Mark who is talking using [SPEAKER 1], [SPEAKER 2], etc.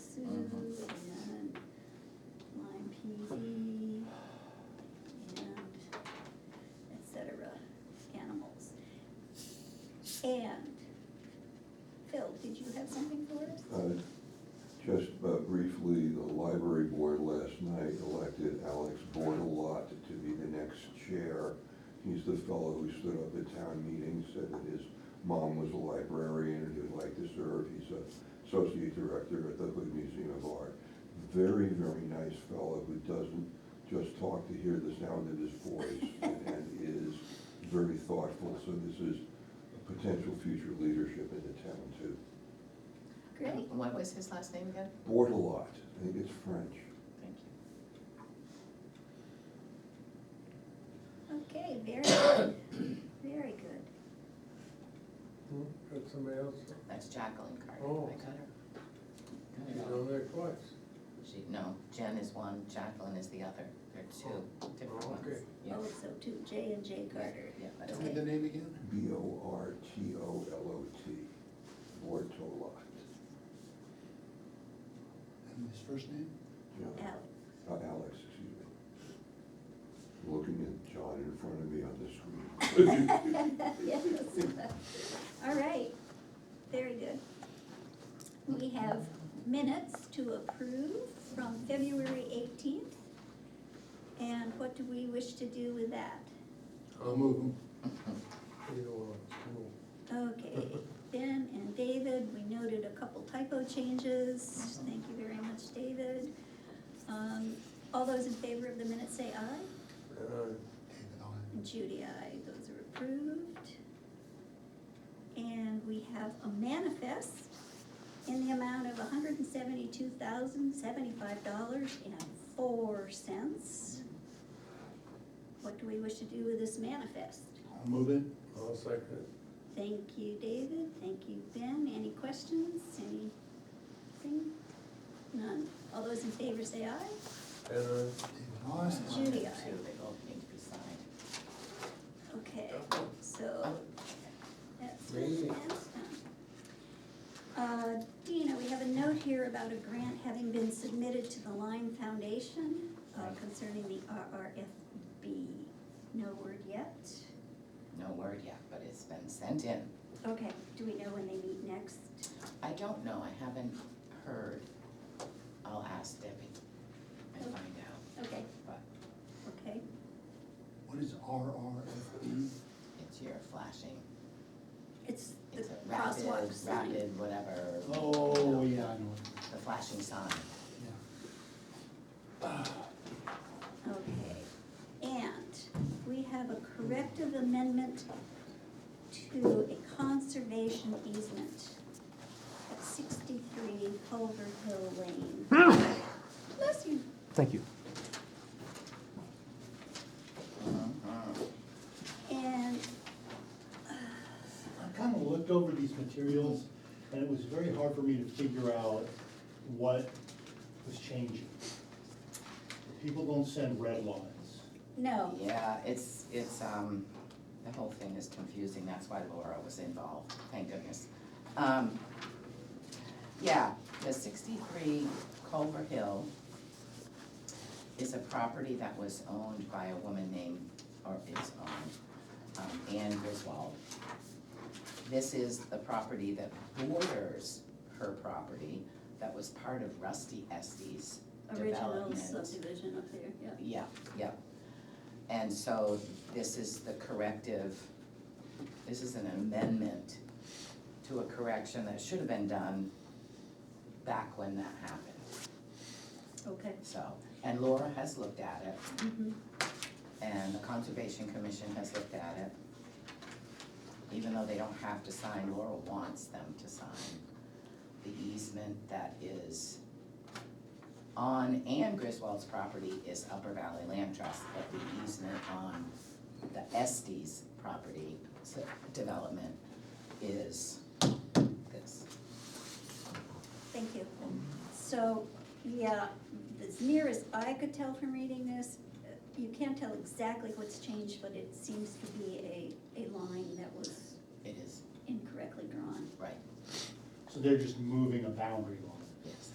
[SPEAKER 1] discussed uh, briefly, the library board last night elected Alex Bordelot to be the next chair. He's the fellow who stood up at town meetings, said that his mom was a librarian and he'd like to serve. He's a associate director at the Hood Museum of Art. Very, very nice fellow who doesn't just talk to hear the sound of his voice and is very thoughtful. So this is a potential future leadership in the town too.
[SPEAKER 2] Great. What was his last name again?
[SPEAKER 1] Bordelot, I think it's French.
[SPEAKER 2] Thank you.
[SPEAKER 3] Okay, very good, very good.
[SPEAKER 4] Hmm, Got somebody else,
[SPEAKER 2] That's Jacqueline Carter.
[SPEAKER 4] Oh.
[SPEAKER 2] I got her.
[SPEAKER 4] you
[SPEAKER 2] Got her.
[SPEAKER 4] know that twice.
[SPEAKER 2] She, no, Jen is one, Jacqueline is the other. They're two different
[SPEAKER 4] Oh,
[SPEAKER 2] ones.
[SPEAKER 4] okay.
[SPEAKER 2] Yeah,
[SPEAKER 3] Oh, so two, J and J Carter.
[SPEAKER 2] yeah, I
[SPEAKER 3] Tell
[SPEAKER 2] don't
[SPEAKER 3] me the
[SPEAKER 5] name again?
[SPEAKER 1] B O R T O L O T, Bortolot.
[SPEAKER 5] And his first name?
[SPEAKER 1] John-
[SPEAKER 3] Alex,
[SPEAKER 1] uh, Alex, excuse me. Looking at John in front of me on the screen.
[SPEAKER 3] yes. All right, very good. We have minutes to approve from February eighteenth. And what do we wish to do with that?
[SPEAKER 4] I'll move them. You know, uh, school.
[SPEAKER 3] Okay, Ben and David, we noted a couple typo changes. Thank you very much, David. Um, All those in favor of the minutes say aye.
[SPEAKER 4] And
[SPEAKER 5] David Owen.
[SPEAKER 3] And Judy, I, those are approved. And we have a manifest in the amount of hundred and seventy-two thousand, seventy-five dollars and four cents. What do we wish to do with this manifest?
[SPEAKER 5] I'll move it.
[SPEAKER 4] I, I'll second it.
[SPEAKER 3] Thank you, David, thank you, Ben, any questions, anything? None, all those in favor say aye.
[SPEAKER 5] David
[SPEAKER 4] And I,
[SPEAKER 5] Owen.
[SPEAKER 3] Judy, I.
[SPEAKER 2] Two, they both need to be signed.
[SPEAKER 3] Okay, so that's where
[SPEAKER 4] Great.
[SPEAKER 3] that's done. Uh, Dina, we have a note here about a grant having been submitted to the Lime Foundation uh,
[SPEAKER 2] Right.
[SPEAKER 3] concerning the RRFB. No word yet.
[SPEAKER 2] No word yet, but it's been sent in.
[SPEAKER 3] Okay, do we know when they meet next?
[SPEAKER 2] I don't know, I haven't heard. I'll ask Debbie and
[SPEAKER 3] Okay.
[SPEAKER 2] find out.
[SPEAKER 3] Okay.
[SPEAKER 2] But-
[SPEAKER 3] Okay,
[SPEAKER 5] What is RRFB?
[SPEAKER 2] It's your flashing,
[SPEAKER 3] it's the
[SPEAKER 2] it's a
[SPEAKER 3] crosswalk
[SPEAKER 2] rapid,
[SPEAKER 3] sign.
[SPEAKER 2] rapid, whatever. you
[SPEAKER 5] Oh,
[SPEAKER 2] know,
[SPEAKER 5] yeah, I know it,
[SPEAKER 2] The flashing sign.
[SPEAKER 5] yeah.
[SPEAKER 3] Okay, and we have a corrective amendment to a conservation easement at sixty-three Culver Hill Lane. Bless you.
[SPEAKER 6] Thank you.
[SPEAKER 4] Uh-huh.
[SPEAKER 2] Mhm.
[SPEAKER 3] And,
[SPEAKER 7] I kind of looked over these materials, and it was very hard for me to figure out what was changing. People don't send red lines.
[SPEAKER 3] no,
[SPEAKER 2] Yeah, it's, it's, um, the whole thing is confusing, that's why Laura was involved, thank goodness. Um, yeah, the sixty-three Culver Hill is a property that was owned by a woman named, or is owned, um, Anne Griswold. This is the property that borders her property that was part of Rusty Estes
[SPEAKER 3] original
[SPEAKER 2] development.
[SPEAKER 3] subdivision up there, yeah.
[SPEAKER 2] Yeah, yeah. And so this is the corrective, this is an amendment to a correction that should have been done back when that happened,
[SPEAKER 3] Okay.
[SPEAKER 2] so. And Laura has looked at it,
[SPEAKER 3] mhm.
[SPEAKER 2] and the Conservation Commission has looked at it. Even though they don't have to sign, Laura wants them to sign the easement that is on Ann Griswold's property is Upper Valley Land Trust, but the easement on the Estes property s- development is this.
[SPEAKER 3] Thank you. So, yeah, as near as I could tell from reading this, uh, you can't tell exactly what's changed, but it seems to be a, a line that was
[SPEAKER 2] It is,
[SPEAKER 3] incorrectly drawn.
[SPEAKER 2] right,
[SPEAKER 7] So they're just moving a boundary line.